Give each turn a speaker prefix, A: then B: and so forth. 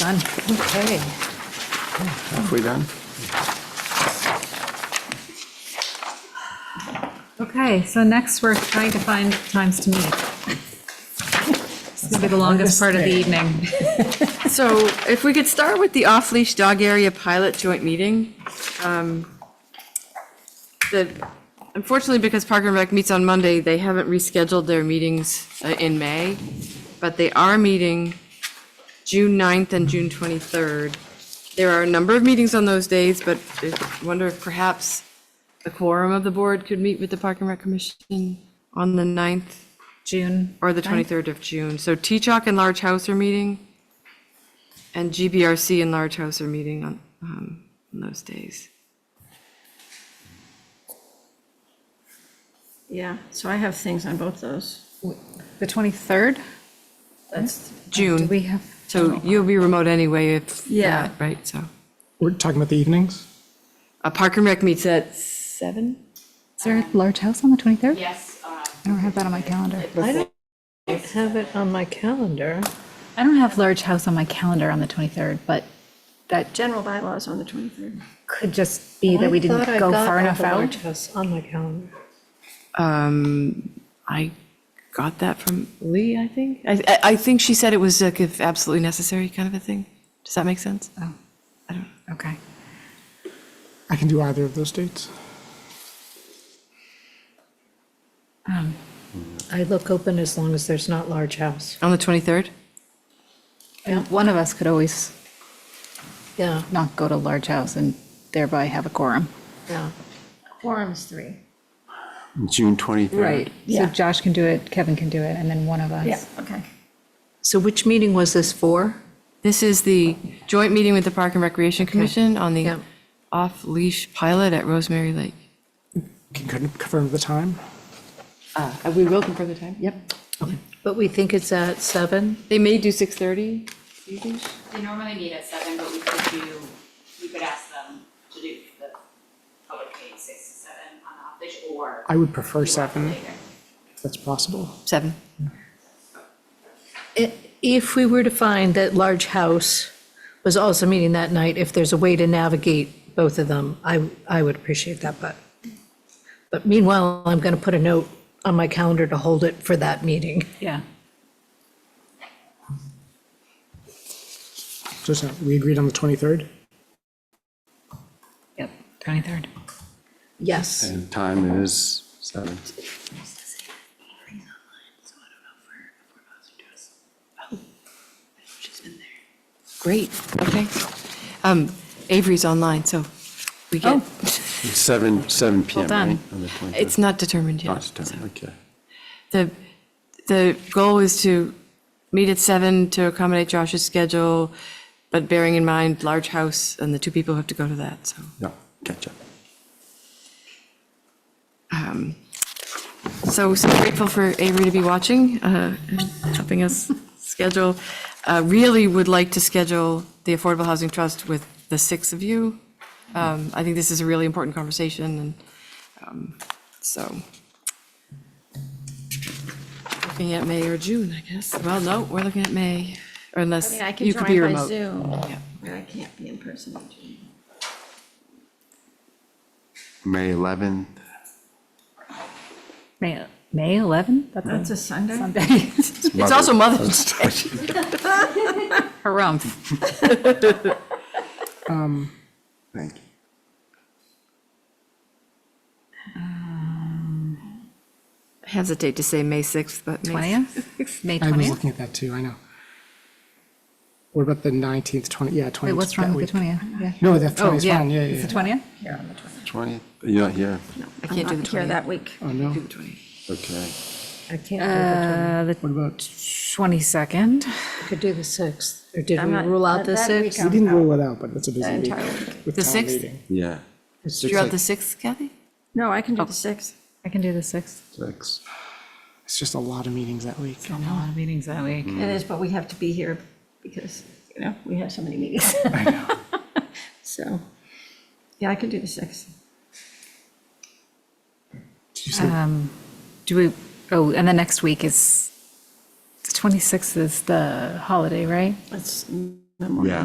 A: done. Okay.
B: Halfway done?
A: Okay, so next we're trying to find times to meet. This is gonna be the longest part of the evening.
C: So if we could start with the off-leash dog area pilot joint meeting. um, That unfortunately, because Park and Rec meets on Monday, they haven't rescheduled their meetings uh, in May, but they are meeting June 9th and June 23rd. There are a number of meetings on those days, but I wonder if perhaps the quorum of the board could meet with the Park and Rec Commission on the 9th
A: June,
C: or the 23rd of June. So T-Chalk and Large House are meeting, and GBRC and Large House are meeting on, um, on those days.
D: Yeah, so I have things on both those.
A: the 23rd?
D: That's,
A: Do we
C: June,
A: have,
C: so you'll be remote anyway if,
D: Yeah.
C: yeah, right, so.
E: We're talking about the evenings?
C: Uh, Park and Rec meets at seven?
A: is there a large house on the 23rd?
F: Yes, uh,
A: I don't have that on my calendar.
G: I have it on my calendar.
A: I don't have large house on my calendar on the 23rd, but that
D: general bylaws on the 23rd.
A: could just be that we didn't
G: I thought I
A: go
G: got
A: far
G: all
A: enough
G: the
A: out.
G: large house On my calendar.
C: Um, I got that from Lee, I think. I, I- I think she said it was like if absolutely necessary kind of a thing. Does that make sense?
A: Okay.
E: I can do either of those dates.
G: I look open as long as there's not large house.
C: On the 23rd?
A: And One of us could always
G: Yeah,
A: not go to large house and thereby have a quorum.
G: yeah.
D: Quorum's three.
B: June 23rd.
A: So
D: Yeah.
A: Josh can do it, Kevin can do it, and then one of us.
D: Yeah, okay.
G: So which meeting was this for?
C: This is the joint meeting with the Park and Recreation Commission on the
G: Yeah.
C: off-leash pilot at Rosemary Lake.
E: Can you confirm the time?
C: Uh, We will confirm the time. Yep.
G: But we think it's at seven?
C: They may do 6:30, do you think?
F: they normally meet at seven, but we could do, we could ask them to do the public meeting six to seven on the off-leash or.
E: I would prefer
F: do it
E: seven,
F: later.
E: if that's possible.
C: 7.
G: I- If we were to find that large house was also meeting that night, if there's a way to navigate both of them, I, I would appreciate that, but. But meanwhile, I'm going to put a note on my calendar to hold it for that meeting.
A: Yeah.
E: Just, uh, we agreed on the 23rd?
A: Yep, 23rd.
G: Yes.
B: And time is seven.
C: Great, okay. Um, Avery's online, so we get,
B: Seven, seven PM,
A: done.
B: right? On the 23rd.
C: it's not determined yet.
B: Not
C: so.
B: time, okay.
C: The, the goal is to meet at seven to accommodate Josh's schedule, but bearing in mind large house and the two people who have to go to that, so.
B: Yeah, catch up.
C: So, so grateful for Avery to be watching, uh, and helping us schedule. Uh, Really would like to schedule the Affordable Housing Trust with the six of you. Um, I think this is a really important conversation, and um, so. Looking at May or June, I guess. Well, no, we're looking at May, or
D: I
C: unless
D: mean, I can
C: you could be
D: join by
C: remote.
D: Zoom,
C: Yeah.
D: but I can't be in person. in June.
B: May 11th,
A: May, May 11th? That's
D: That's a Sunday?
A: Sunday.
C: It's also Mother's Day.
A: Harumph.
B: thank you.
C: I hesitate to say May 6th, but May
A: 20th? May
E: I was
A: 20th?
E: looking at that too, I know. What about the 19th, 20, yeah, 20th?
A: Wait, what's wrong
E: that
A: with the
E: week.
A: 20th? Yeah. Oh,
E: No, the 20th is
A: yeah,
E: fine, yeah,
A: It's
E: yeah,
A: the
E: yeah.
A: 20th?
D: Here on the 20th.
B: 20th, you're not here,
D: No,
C: can't do
D: I'm
C: the
D: not here that week.
E: Oh, no.
C: Do the 20th.
B: okay.
G: I can't,
A: Uh, the
E: What about,
A: 22nd?
G: we could do the sixth, or did
D: I'm
G: we
D: not-
G: rule out
D: that-
G: the
D: that week
G: sixth?
E: we didn't rule it out, but it's a busy week
D: entire week.
E: with
C: The
E: town
C: 6th?
E: meeting.
B: Yeah,
C: You're out the 6th, Kathy?
D: No, I can do the sixth.
A: I can do the 6th.
B: six.
E: It's just a lot of meetings that week.
A: A lot of meetings that week.
D: It is, but we have to be here because, you know, we have so many meetings. So, yeah, I can do the sixth.
E: Did you say,
A: Um, Do we, oh, and the next week is, the 26th is the holiday, right?
D: That's Memorial
B: Yeah.